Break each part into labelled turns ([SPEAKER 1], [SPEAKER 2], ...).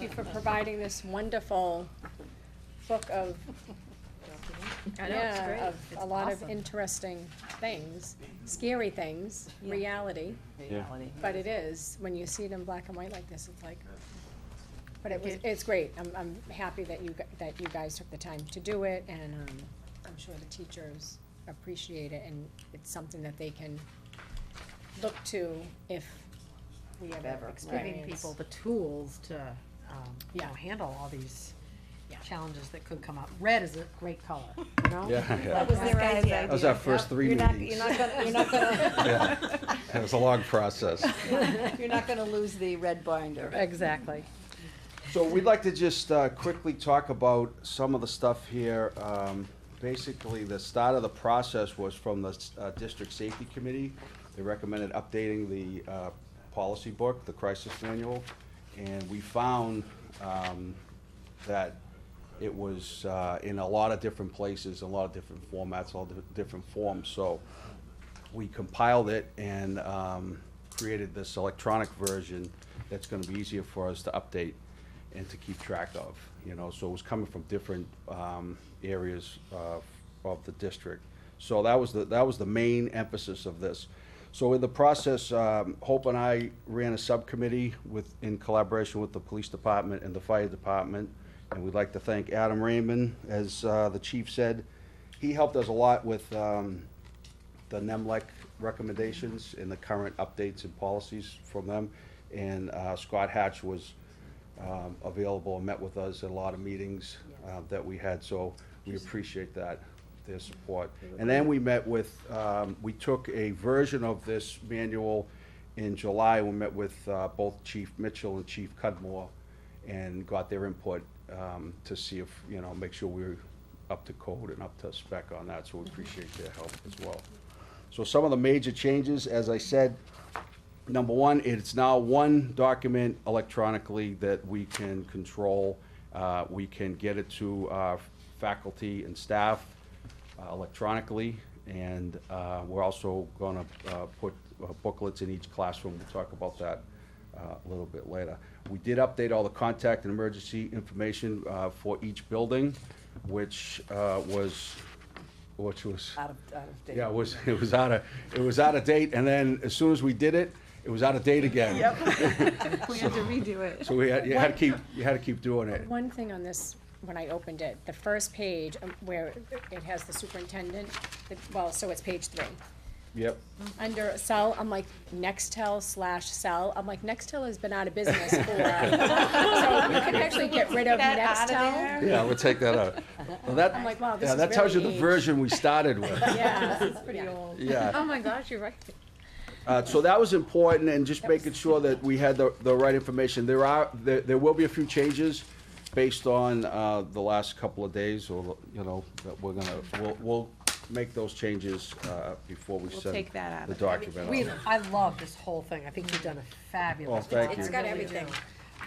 [SPEAKER 1] you for providing this wonderful book of,
[SPEAKER 2] I know, it's great.
[SPEAKER 1] yeah, of
[SPEAKER 2] It's
[SPEAKER 1] a lot of
[SPEAKER 2] awesome.
[SPEAKER 1] interesting things, scary things,
[SPEAKER 2] Yeah.
[SPEAKER 1] reality.
[SPEAKER 3] reality.
[SPEAKER 1] But it is, when you see it in black and white like this, it's like, but it was,
[SPEAKER 2] Okay.
[SPEAKER 1] it's great. I'm, I'm happy that you, gu- that you guys took the time to do it and, um, I'm sure the teachers appreciate it and it's something that they can look to if we
[SPEAKER 3] Ever,
[SPEAKER 1] ever
[SPEAKER 3] right.
[SPEAKER 1] experience.
[SPEAKER 4] giving people the tools to, um, you know,
[SPEAKER 1] Yeah.
[SPEAKER 4] handle all these
[SPEAKER 1] Yeah.
[SPEAKER 4] challenges that could come up. Red is a great color, you know?
[SPEAKER 5] Yeah, yeah.
[SPEAKER 2] was their idea.
[SPEAKER 5] That was our first three
[SPEAKER 2] You're not,
[SPEAKER 5] meetings.
[SPEAKER 2] you're not gonna, you're not gonna,
[SPEAKER 5] It was a long process.
[SPEAKER 2] you're not gonna lose the red binder.
[SPEAKER 4] Exactly.
[SPEAKER 5] So we'd like to just uh, quickly talk about some of the stuff here. Um, Basically, the start of the process was from the uh, District Safety Committee. They recommended updating the uh, policy book, the crisis manual, and we found um, that it was uh, in a lot of different places, a lot of different formats, all di- different forms. So we compiled it and um, created this electronic version that's gonna be easier for us to update and to keep track of, you know, so it was coming from different um, areas uh, of the district. So that was the, that was the main emphasis of this. So in the process, um, Hope and I ran a subcommittee with, in collaboration with the police department and the fire department. And we'd like to thank Adam Raymond, as uh, the chief said. He helped us a lot with um, the NEMLEC recommendations and the current updates and policies from them. And uh, Scott Hatch was um, available and met with us at a lot of meetings uh, that we had, so we appreciate that, their support. And then we met with, um, we took a version of this manual in July, we met with uh, both Chief Mitchell and Chief Cudmore and got their input um, to see if, you know, make sure we're up to code and up to spec on that, so we appreciate their help as well. So some of the major changes, as I said, number one, it's now one document electronically that we can control. Uh, We can get it to our faculty and staff uh, electronically, and uh, we're also gonna uh, put booklets in each classroom. We'll talk about that uh, a little bit later. We did update all the contact and emergency information uh, for each building, which uh, was, which was.
[SPEAKER 2] Out of, out of date.
[SPEAKER 5] Yeah, it was, it was out of, it was out of date, and then as soon as we did it, it was out of date again.
[SPEAKER 2] We had to redo it.
[SPEAKER 5] So we had, you had to keep, you had to keep doing it.
[SPEAKER 1] One thing on this, when I opened it, the first page um, where it has the superintendent, it- well, so it's page three.
[SPEAKER 5] Yep.
[SPEAKER 1] Under cell, I'm like Nextel slash cell, I'm like Nextel has been out of business for. So you can actually get rid of
[SPEAKER 2] Get out of there.
[SPEAKER 1] Nextel.
[SPEAKER 5] Yeah, we'll take that out. Well, that,
[SPEAKER 1] I'm like, wow, this
[SPEAKER 5] yeah,
[SPEAKER 1] is
[SPEAKER 5] that tells you
[SPEAKER 1] really
[SPEAKER 5] the
[SPEAKER 1] aged.
[SPEAKER 5] version we started with.
[SPEAKER 1] Yeah. This is pretty old.
[SPEAKER 5] Yeah.
[SPEAKER 2] Oh my gosh, you're right.
[SPEAKER 5] Uh, so that was important, and just
[SPEAKER 1] That was-
[SPEAKER 5] making sure that we had the, the right information. There are, there, there will be a few changes based on, uh, the last couple of days, or, you know, that we're gonna, we'll, we'll make those changes, uh, before we
[SPEAKER 2] We'll
[SPEAKER 5] send
[SPEAKER 2] take that out
[SPEAKER 5] the
[SPEAKER 2] of it. I
[SPEAKER 5] document out.
[SPEAKER 4] We, I love this whole thing. I think you've done a fabulous
[SPEAKER 5] Well,
[SPEAKER 4] job.
[SPEAKER 5] thank you.
[SPEAKER 1] It's got
[SPEAKER 4] I really
[SPEAKER 1] everything.
[SPEAKER 4] do.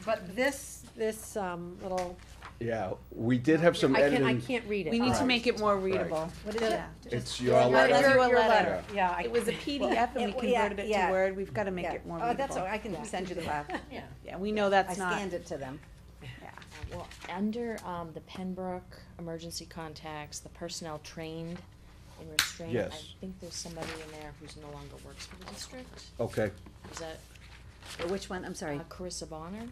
[SPEAKER 4] But this, this, um, little,
[SPEAKER 5] Yeah, we did have some
[SPEAKER 4] I can't, I
[SPEAKER 5] editing.
[SPEAKER 4] can't read it.
[SPEAKER 2] We need to
[SPEAKER 5] Right.
[SPEAKER 2] make it more readable.
[SPEAKER 4] What is it?
[SPEAKER 5] It's your
[SPEAKER 2] Your-
[SPEAKER 5] letter.
[SPEAKER 2] your letter.
[SPEAKER 4] Yeah, I,
[SPEAKER 2] It was a PDF and we
[SPEAKER 6] Well, yeah,
[SPEAKER 2] converted it to
[SPEAKER 6] yeah.
[SPEAKER 2] Word, we've gotta make
[SPEAKER 6] Yeah.
[SPEAKER 2] it more
[SPEAKER 6] Oh, that's
[SPEAKER 2] readable.
[SPEAKER 6] all, right. I can send you the file.
[SPEAKER 1] Yeah.
[SPEAKER 2] Yeah, we know
[SPEAKER 6] I
[SPEAKER 2] that's not,
[SPEAKER 6] scanned it to them.
[SPEAKER 7] Well, under, um, the Pembroke emergency contacts, the personnel trained in restraint, I
[SPEAKER 5] Yes.
[SPEAKER 7] think there's somebody in there who's no longer works for the district.
[SPEAKER 5] Okay.
[SPEAKER 7] Is that
[SPEAKER 6] Oh, Which one? I'm sorry.
[SPEAKER 7] uh, Carissa Bonner?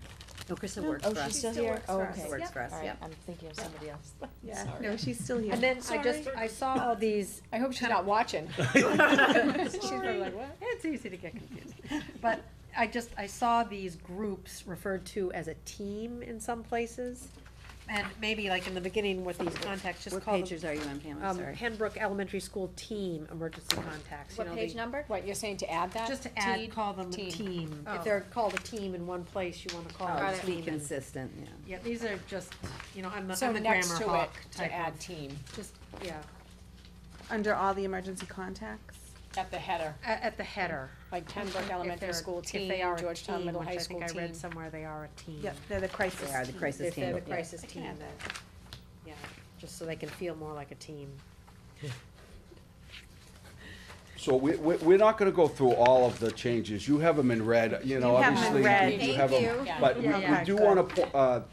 [SPEAKER 6] No, Krista works
[SPEAKER 7] Oh,
[SPEAKER 6] for
[SPEAKER 7] she's still
[SPEAKER 6] us.
[SPEAKER 7] here? Oh, okay.
[SPEAKER 6] Works for us,
[SPEAKER 7] All right,
[SPEAKER 6] yep.
[SPEAKER 7] I'm thinking of somebody else.
[SPEAKER 2] yeah,
[SPEAKER 7] Sorry.
[SPEAKER 2] no, she's still here.
[SPEAKER 4] and then I just, I saw all these
[SPEAKER 1] I hope she's not watching.
[SPEAKER 4] She's probably like, what? It's easy to get confused. But I just, I saw these groups referred to as a team in some places. And maybe like in the beginning with these contacts, just
[SPEAKER 6] What
[SPEAKER 4] call
[SPEAKER 6] pages
[SPEAKER 4] them,
[SPEAKER 6] are you on, Pam? I'm
[SPEAKER 4] um,
[SPEAKER 6] sorry.
[SPEAKER 4] Pembroke Elementary School Team Emergency Contacts, you know, the-
[SPEAKER 7] number?
[SPEAKER 1] What, you're saying to add that?
[SPEAKER 4] Just to add,
[SPEAKER 1] Teed?
[SPEAKER 4] call them a
[SPEAKER 1] Team.
[SPEAKER 4] team.
[SPEAKER 1] Oh.
[SPEAKER 4] If they're called a team in one place, you wanna call
[SPEAKER 6] Oh,
[SPEAKER 4] them a
[SPEAKER 6] it's be
[SPEAKER 4] team. in-
[SPEAKER 6] consistent, yeah.
[SPEAKER 4] Yeah, these are just, you know, I'm the,
[SPEAKER 1] So
[SPEAKER 4] I'm the
[SPEAKER 1] next
[SPEAKER 4] grammar
[SPEAKER 1] to it,
[SPEAKER 4] hawk
[SPEAKER 1] to
[SPEAKER 4] type
[SPEAKER 1] add
[SPEAKER 4] of,
[SPEAKER 1] team,
[SPEAKER 4] just, yeah,
[SPEAKER 2] Under all the emergency contacts?
[SPEAKER 1] at the header,
[SPEAKER 4] at, at the header.
[SPEAKER 1] like Pembroke
[SPEAKER 4] If
[SPEAKER 1] Elementary
[SPEAKER 4] they're-
[SPEAKER 1] School
[SPEAKER 4] if
[SPEAKER 1] team,
[SPEAKER 4] they are a
[SPEAKER 1] Georgetown
[SPEAKER 4] team,
[SPEAKER 1] Middle
[SPEAKER 4] which
[SPEAKER 1] High
[SPEAKER 4] I
[SPEAKER 1] School
[SPEAKER 4] think I
[SPEAKER 1] team.
[SPEAKER 4] read somewhere they are a team.
[SPEAKER 2] Yep, they're the crisis
[SPEAKER 6] They are the
[SPEAKER 2] team.
[SPEAKER 6] crisis
[SPEAKER 4] If they're the
[SPEAKER 6] team. yeah.
[SPEAKER 4] crisis
[SPEAKER 2] I can
[SPEAKER 4] team,
[SPEAKER 2] add
[SPEAKER 4] then,
[SPEAKER 2] that.
[SPEAKER 4] yeah, just so they can feel more like a team.
[SPEAKER 5] So we, we, we're not gonna go through all of the changes, you have them in red, you know,
[SPEAKER 2] You have 'em in
[SPEAKER 5] obviously,
[SPEAKER 2] red.
[SPEAKER 5] you have them.
[SPEAKER 1] Thank you.
[SPEAKER 5] But we,
[SPEAKER 2] Yeah,
[SPEAKER 5] we do
[SPEAKER 2] good.
[SPEAKER 5] wanna, po- uh,